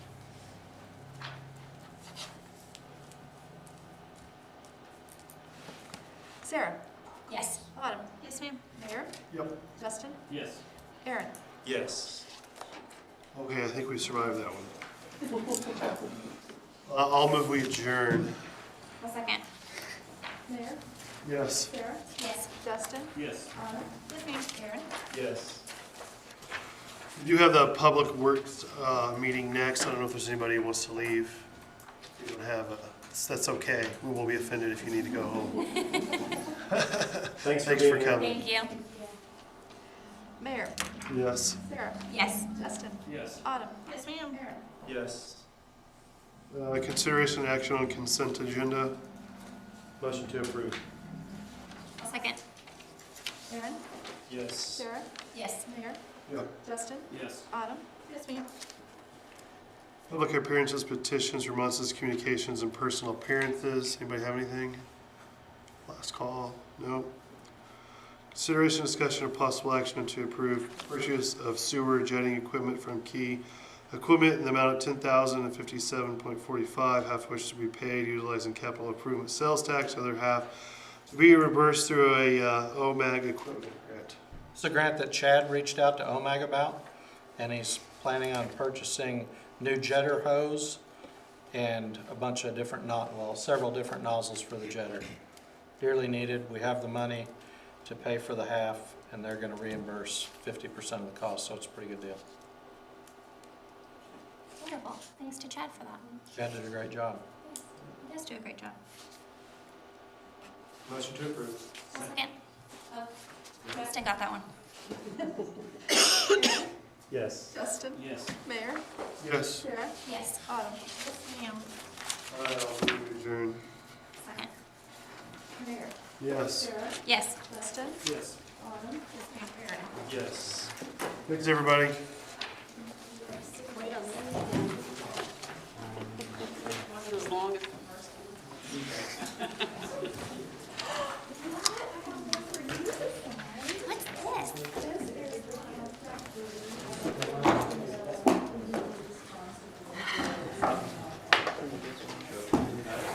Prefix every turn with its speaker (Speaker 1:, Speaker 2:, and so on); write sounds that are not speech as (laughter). Speaker 1: Sarah?
Speaker 2: Yes.
Speaker 1: Autumn? Yes, ma'am. Mayor?
Speaker 3: Yep.
Speaker 1: Justin?
Speaker 4: Yes.
Speaker 1: Aaron?
Speaker 3: Yes. Okay, I think we survived that one. (laughs) Uh, I'll move we adjourn.
Speaker 2: A second.
Speaker 1: Mayor?
Speaker 3: Yes.
Speaker 1: Sarah?
Speaker 2: Yes.
Speaker 1: Justin?
Speaker 4: Yes.
Speaker 1: Autumn? Yes, ma'am. Aaron?
Speaker 3: Yes. We do have the public works uh, meeting next. I don't know if there's anybody who wants to leave. We don't have, a- that's okay. We will be offended if you need to go
Speaker 5: (laughs)
Speaker 3: home.
Speaker 5: Thanks for
Speaker 3: Thanks for
Speaker 5: being here.
Speaker 3: coming.
Speaker 2: Thank you.
Speaker 1: Mayor?
Speaker 3: Yes.
Speaker 1: Sarah?
Speaker 2: Yes.
Speaker 1: Justin?
Speaker 4: Yes.
Speaker 1: Autumn?
Speaker 2: Yes, ma'am.
Speaker 1: Aaron?
Speaker 5: Yes.
Speaker 3: Uh, Consideration and action on consent agenda.
Speaker 5: Motion to approve.
Speaker 2: A second.
Speaker 1: Aaron?
Speaker 5: Yes.
Speaker 1: Sarah?
Speaker 2: Yes.
Speaker 1: Mayor?
Speaker 3: Yep.
Speaker 1: Justin?
Speaker 4: Yes.
Speaker 1: Autumn? Yes, ma'am.
Speaker 3: Public appearances, petitions, remonstrances, communications, and personal appearances. Anybody have anything? Last call? No. Consideration, discussion, and possible action to approve purchase of sewer jetting equipment from Key Equipment in the amount of ten thousand and fifty-seven point forty-five, half of which to be paid utilizing capital improvement sales tax, other half to be reimbursed through a uh, OMAG equipment grant.
Speaker 6: It's a grant that Chad reached out to OMAG about, and he's planning on purchasing new jetter hose and a bunch of different not, well, several different nozzles for the jetter. Dearly needed, we have the money to pay for the half, and they're gonna reimburse fifty percent of the cost, so it's a pretty good deal.
Speaker 2: Wonderful. Thanks to Chad for that.
Speaker 6: Chad did a great job.
Speaker 2: He does do a great job.
Speaker 5: Motion to approve.
Speaker 2: A second. Justin got that one.
Speaker 5: Yes.
Speaker 1: Justin?
Speaker 4: Yes.
Speaker 1: Mayor?
Speaker 3: Yes.
Speaker 1: Sarah?
Speaker 2: Yes.
Speaker 1: Autumn?
Speaker 2: Yes, ma'am.
Speaker 3: All right, I'll move to adjourn.
Speaker 2: Second.
Speaker 1: Mayor?
Speaker 3: Yes.
Speaker 1: Sarah?
Speaker 2: Yes.
Speaker 1: Justin?
Speaker 4: Yes.
Speaker 1: Autumn?
Speaker 2: Yes, ma'am.
Speaker 5: Yes.
Speaker 3: Thanks, everybody.